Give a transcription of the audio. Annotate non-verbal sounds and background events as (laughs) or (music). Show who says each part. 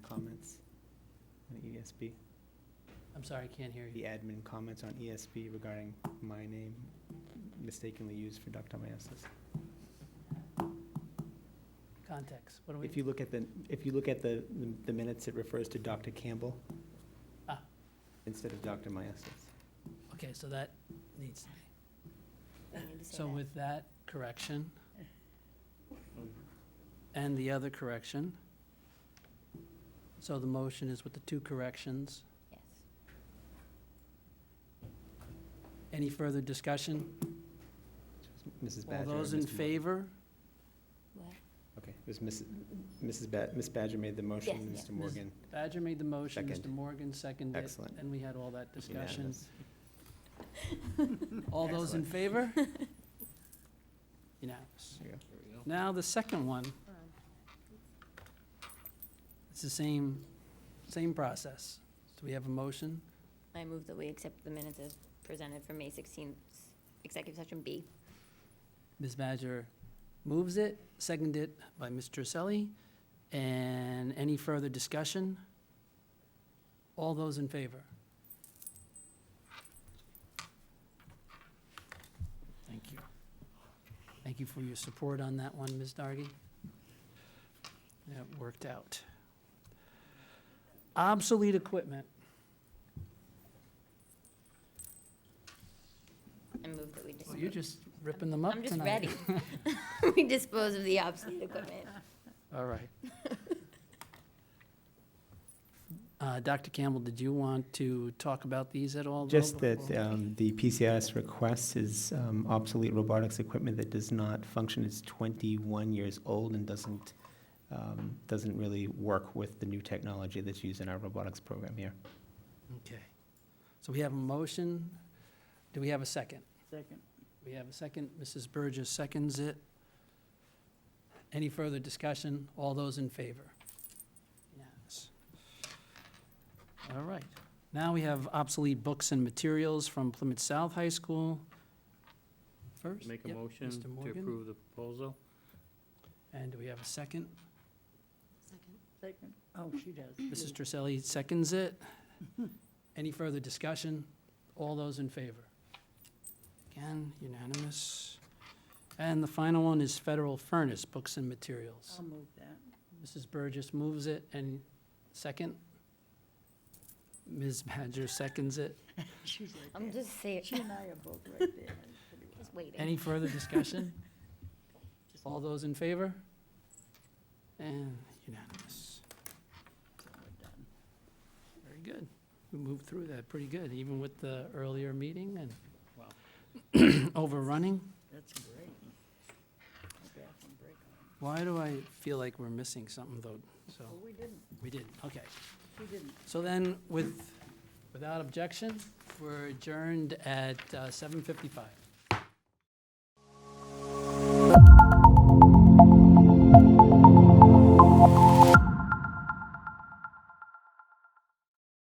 Speaker 1: ESP,
Speaker 2: I'm sorry, I can't hear
Speaker 1: E the
Speaker 2: you.
Speaker 1: admin comments on ESP regarding my name mistakenly used for Dr. Meneses.
Speaker 2: Context, what do we?
Speaker 1: If you look at the, if you look at the, the minutes, it refers to Dr. Campbell
Speaker 2: Ah.
Speaker 1: instead of Dr. Meneses.
Speaker 2: Okay, so that needs to be.
Speaker 3: We need to say
Speaker 2: So
Speaker 3: that.
Speaker 2: with that correction, and the other correction, so the motion is with the two corrections.
Speaker 3: Yes.
Speaker 2: Any further discussion?
Speaker 1: Mrs.
Speaker 2: All
Speaker 1: Badger. or
Speaker 2: those in
Speaker 1: Ms. Mo-
Speaker 2: favor?
Speaker 3: What?
Speaker 1: Okay, it was Mrs. Mrs. Ba, Ms. Badger made the motion,
Speaker 3: Yes.
Speaker 1: Mr. Morgan.
Speaker 2: Badger made the motion, Mr.
Speaker 1: Second.
Speaker 2: Morgan seconded. it,
Speaker 1: Excellent.
Speaker 2: And we had all that
Speaker 1: (laughs)
Speaker 2: discussion.
Speaker 1: Unanimous.
Speaker 2: All those in favor? Unanimous.
Speaker 1: There you go.
Speaker 2: Now, the second one,
Speaker 3: Um,
Speaker 2: it's the same, same process. Do we have a motion?
Speaker 3: I move that we accept the minutes as presented for May 16th, executive session B.
Speaker 2: Ms. Badger moves it, seconded by Mr. Selly. And any further discussion? All those in favor? Thank you. Thank you for your support on that one, Ms. Dargy. That worked out. Obsolete equipment.
Speaker 3: I move that we dispose.
Speaker 2: Well, You're just ripping them up
Speaker 3: I'm
Speaker 2: tonight.
Speaker 3: just ready.
Speaker 2: (laughs)
Speaker 3: (laughs) We dispose of the obsolete (laughs) equipment.
Speaker 2: All right. Uh, Dr. Campbell, did you want to talk about these at all? though,
Speaker 1: Just
Speaker 2: before-
Speaker 1: that um, the PCIS request is um, obsolete robotics equipment that does not function, it's 21 years old and doesn't, um, doesn't really work with the new technology that's used in our robotics program here.
Speaker 2: Okay. So we have a motion. Do we have a second?
Speaker 4: Second.
Speaker 2: We have a second. Mrs. Burgess seconds it. Any further discussion? All those in favor? Yes. All right. Now we have obsolete books and materials from Plymouth South High School. First?
Speaker 4: Make a
Speaker 2: Yep.
Speaker 4: motion
Speaker 2: Mr.
Speaker 4: to
Speaker 2: Morgan?
Speaker 4: approve the proposal?
Speaker 2: And do we have a second?
Speaker 4: Second. Oh, she does.
Speaker 2: Mrs. Trisselli seconds it. Any further discussion? All those in favor? Again, unanimous. And the final one is federal furnace, books and materials.
Speaker 4: I'll move that.
Speaker 2: Mrs. Burgess moves it and second? Ms. Badger seconds it.
Speaker 4: She's
Speaker 3: I'm
Speaker 4: right there.
Speaker 3: just saying,
Speaker 4: She and I are both right there.
Speaker 3: just waiting.
Speaker 2: Any further discussion? All those in favor? And unanimous. Very good. We moved through that pretty good, even with the earlier meeting and (clears throat) overrunning.
Speaker 4: That's great. Go back and break on.
Speaker 2: Why do I feel like we're missing something though? So,
Speaker 4: Well, we didn't,
Speaker 2: we did, okay.
Speaker 4: we didn't.
Speaker 2: So then, with, without objection, we're adjourned at uh, 7:55.